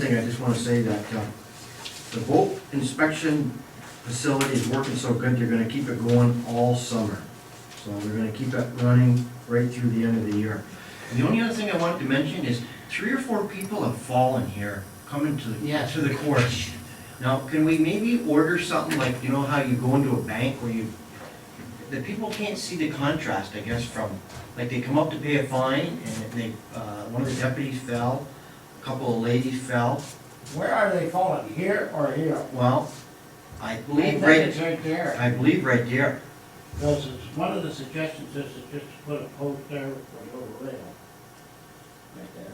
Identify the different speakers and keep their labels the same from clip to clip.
Speaker 1: thing, I just want to say that uh, the boat inspection facility is working so good, they're going to keep it going all summer. So they're going to keep it running right through the end of the year. And The only other thing I wanted to mention is three or four people have fallen here coming to,
Speaker 2: Yeah.
Speaker 1: to the course. Now, can we maybe order something like, you know how you go into a bank where you, the people can't see the contrast, I guess, from, like, they come up to pay a fine and they, uh, one of the deputies fell, a couple of ladies fell.
Speaker 2: Where are they falling, here or here?
Speaker 1: Well, I
Speaker 2: I think
Speaker 1: believe
Speaker 2: it's
Speaker 1: right,
Speaker 2: right there.
Speaker 1: I believe right there,
Speaker 2: Because it's, one of the suggestions is to just put a post there for a little rail. Right there.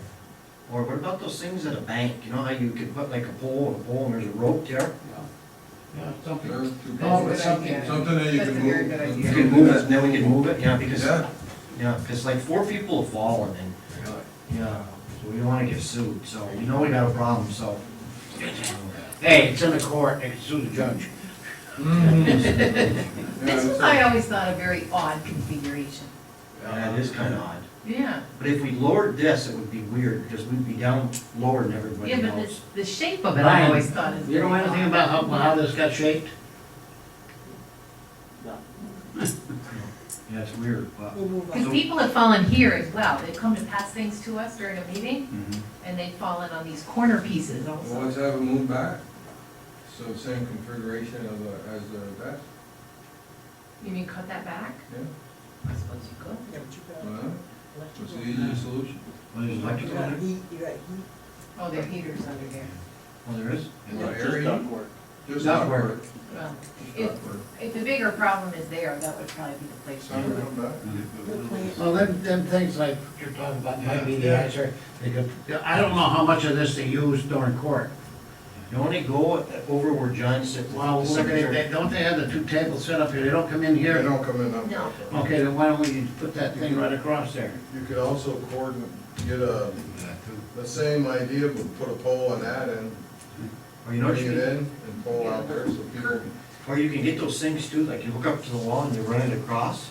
Speaker 1: or what about those things at a bank, you know how you can put like a pole and a pole and there's a rope there?
Speaker 2: Yeah, something.
Speaker 3: There's two
Speaker 2: Come up
Speaker 3: people.
Speaker 2: with something.
Speaker 3: Something that you can
Speaker 4: That's a
Speaker 3: move.
Speaker 4: very good idea.
Speaker 1: You can move it, and then we can move it, yeah, because,
Speaker 3: Yeah,
Speaker 1: yeah, because like four people have fallen and, yeah, so we don't wanna get sued, so we know we got a problem, so.
Speaker 2: Hey, it's in the court, they can sue the judge.
Speaker 3: Yeah,
Speaker 4: This
Speaker 3: it's
Speaker 4: is, I always thought, a very odd configuration.
Speaker 1: Yeah, it is kinda odd,
Speaker 4: Yeah.
Speaker 1: but if we lowered this, it would be weird, because we'd be down lower than everybody
Speaker 4: Yeah, but it's
Speaker 1: else.
Speaker 4: the shape of it, I always thought is
Speaker 2: You
Speaker 4: very
Speaker 2: know
Speaker 4: odd.
Speaker 2: anything about how, how this got shaped?
Speaker 1: Yeah, it's weird, but.
Speaker 4: Because people have fallen here as well, they've come to pass things to us during a meeting,
Speaker 1: Mhm.
Speaker 4: and they've fallen on these corner pieces
Speaker 3: Well,
Speaker 4: also.
Speaker 3: let's have it moved back, so same configuration of, the- as the desk,
Speaker 4: You mean cut that back?
Speaker 3: yeah,
Speaker 4: I suppose you could.
Speaker 3: well, it's the easiest
Speaker 1: Mm-hmm.
Speaker 3: solution.
Speaker 1: Well, there's electrical, in it?
Speaker 4: Oh, there are heaters under there.
Speaker 1: well, there is,
Speaker 3: Well, area, just
Speaker 1: Not
Speaker 3: not
Speaker 1: work.
Speaker 3: work.
Speaker 4: Well,
Speaker 3: Just
Speaker 4: if,
Speaker 3: not work.
Speaker 4: if the bigger problem is there, that would probably be the place
Speaker 3: It's
Speaker 4: to
Speaker 3: time to
Speaker 4: do
Speaker 3: come back.
Speaker 2: Well, them, them things like you're talking about might be the answer. They could, I don't know how much of this they used during court.
Speaker 1: You only go over where John said,
Speaker 2: Well,
Speaker 1: well,
Speaker 2: look, they, they- don't they have the two tables set up here? They don't come in
Speaker 3: They
Speaker 2: here?
Speaker 3: don't come in
Speaker 4: it.
Speaker 3: up.
Speaker 4: No,
Speaker 2: Okay, then why don't we put that thing right across there?
Speaker 3: You could also coordinate, get a, the same idea, but put a pole on that and
Speaker 1: Or you know what
Speaker 3: bring
Speaker 1: you
Speaker 3: it
Speaker 1: can,
Speaker 3: in and pole out there so people.
Speaker 1: or you can get those things too, like you hook up to the wall and you run it across,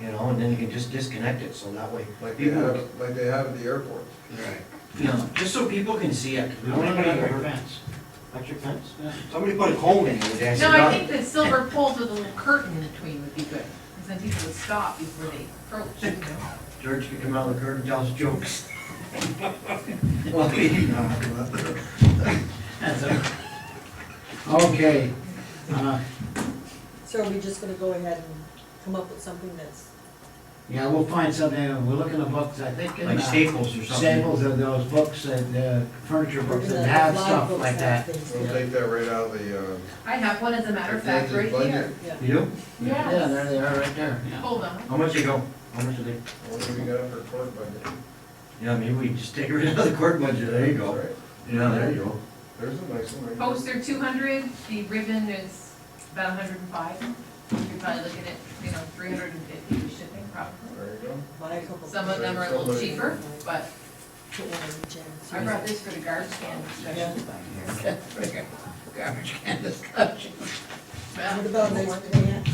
Speaker 1: you know, and then you can just disconnect it, so that way.
Speaker 3: Like they
Speaker 1: people
Speaker 3: have, like they have at the airport.
Speaker 2: Right.
Speaker 1: You know, just so people can see it. 'cause we
Speaker 2: I
Speaker 1: don't
Speaker 2: want
Speaker 1: want
Speaker 2: to
Speaker 1: anybody
Speaker 2: make
Speaker 1: to
Speaker 2: a
Speaker 1: hurt-
Speaker 2: fence.
Speaker 1: Electric fence? Somebody put a cone in there, that's
Speaker 4: no, I
Speaker 1: about
Speaker 4: think
Speaker 1: it.
Speaker 4: the silver poles with a little curtain between would be good, because then people would stop before they approach, you know?
Speaker 1: George could come out of the curtain, and tell us jokes. Well, he- no, but-
Speaker 2: That's it. Okay. Uh,
Speaker 5: So are we just gonna go ahead and come up with something that's,
Speaker 2: Yeah, we'll find something. We'll look in the books, I think. in,
Speaker 1: Like
Speaker 2: uh,
Speaker 1: staples or something.
Speaker 2: Staples of those books and uh, furniture
Speaker 5: we're
Speaker 2: books
Speaker 5: gonna
Speaker 2: that
Speaker 5: have
Speaker 2: have
Speaker 5: a lot of
Speaker 2: stuff
Speaker 5: books
Speaker 2: like
Speaker 5: have
Speaker 2: that.
Speaker 5: things
Speaker 3: We'll
Speaker 5: there.
Speaker 3: take that right out of the, uh.
Speaker 4: I have one, as a matter of fact, right
Speaker 3: budget.
Speaker 4: here.
Speaker 5: Yeah,
Speaker 1: You?
Speaker 2: Yeah, there
Speaker 4: Yes.
Speaker 2: they are, right there. yeah.
Speaker 4: Hold on.
Speaker 1: How much you go? How much are they?
Speaker 3: What do we got for court budget?
Speaker 1: Yeah, maybe we just take it out of the court budget, there you go.
Speaker 3: Right.
Speaker 1: Yeah, there you go.
Speaker 3: There's a nice one right there.
Speaker 4: Poster two hundred, the ribbon is about hundred and five. You're probably looking at, you know, three hundred and fifty for shipping probably.
Speaker 3: There you go.
Speaker 5: buy a couple.
Speaker 4: Some of them are a little cheaper, but
Speaker 5: Put one in each end.
Speaker 4: I brought this for the garbage can discussion.
Speaker 2: Garbage can discussion.
Speaker 5: What about this plant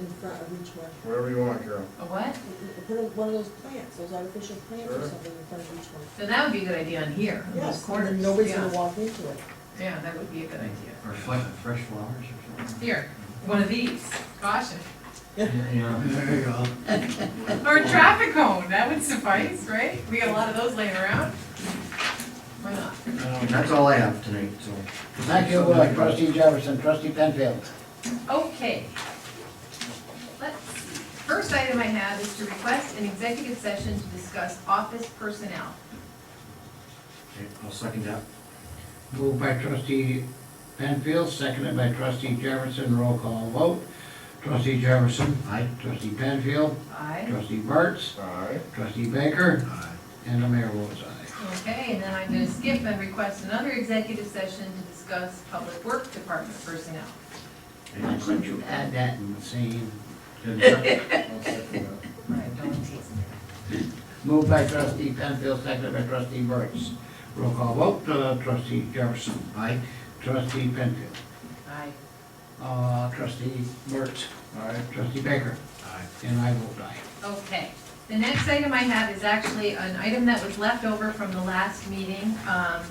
Speaker 5: in front of each one?
Speaker 3: Whatever you want, Carol.
Speaker 4: A what?
Speaker 5: Put a- one of those plants, those artificial plants or
Speaker 3: Sure.
Speaker 5: something in front of each one.
Speaker 4: So that would be a good idea on here, on those
Speaker 5: Yes, and
Speaker 4: corners.
Speaker 5: then nobody's
Speaker 4: Yeah.
Speaker 5: gonna walk into it.
Speaker 4: Yeah, that would be a good idea.
Speaker 1: Or fresh, fresh flowers or something.
Speaker 4: Here, one of these, caution.
Speaker 1: Yeah.
Speaker 2: There you go.
Speaker 4: Or a traffic cone, that would suffice, right? We got a lot of those laying around. Why not?
Speaker 1: And that's all I have tonight, so.
Speaker 2: Thank you, uh, trustee Jefferson, trustee Penfield.
Speaker 4: Okay. Let's, see. first item I have is to request an executive session to discuss office personnel.
Speaker 1: Okay, I'll second that.
Speaker 2: Moved by trustee Penfield, seconded by trustee Jefferson, roll call vote. Trustee Jefferson. Aye. Trustee Penfield.
Speaker 4: Aye.
Speaker 2: Trustee Burts.
Speaker 3: Aye.
Speaker 2: Trustee Baker. Aye. And the mayor votes aye.
Speaker 4: Okay, and then I'm gonna skip and request another executive session to discuss public work department personnel.
Speaker 2: Why couldn't you add that in the same?
Speaker 3: I'll second that.
Speaker 4: Right, don't tease me.
Speaker 2: Moved by trustee Penfield, seconded by trustee Burts. Roll call vote, uh, trustee Jefferson. Aye. Trustee Penfield.
Speaker 4: Aye.
Speaker 2: Uh, trustee Burts. Aye. Trustee Baker. Aye. And I vote aye.
Speaker 4: Okay, the next item I have is actually an item that was left over from the last meeting. Um,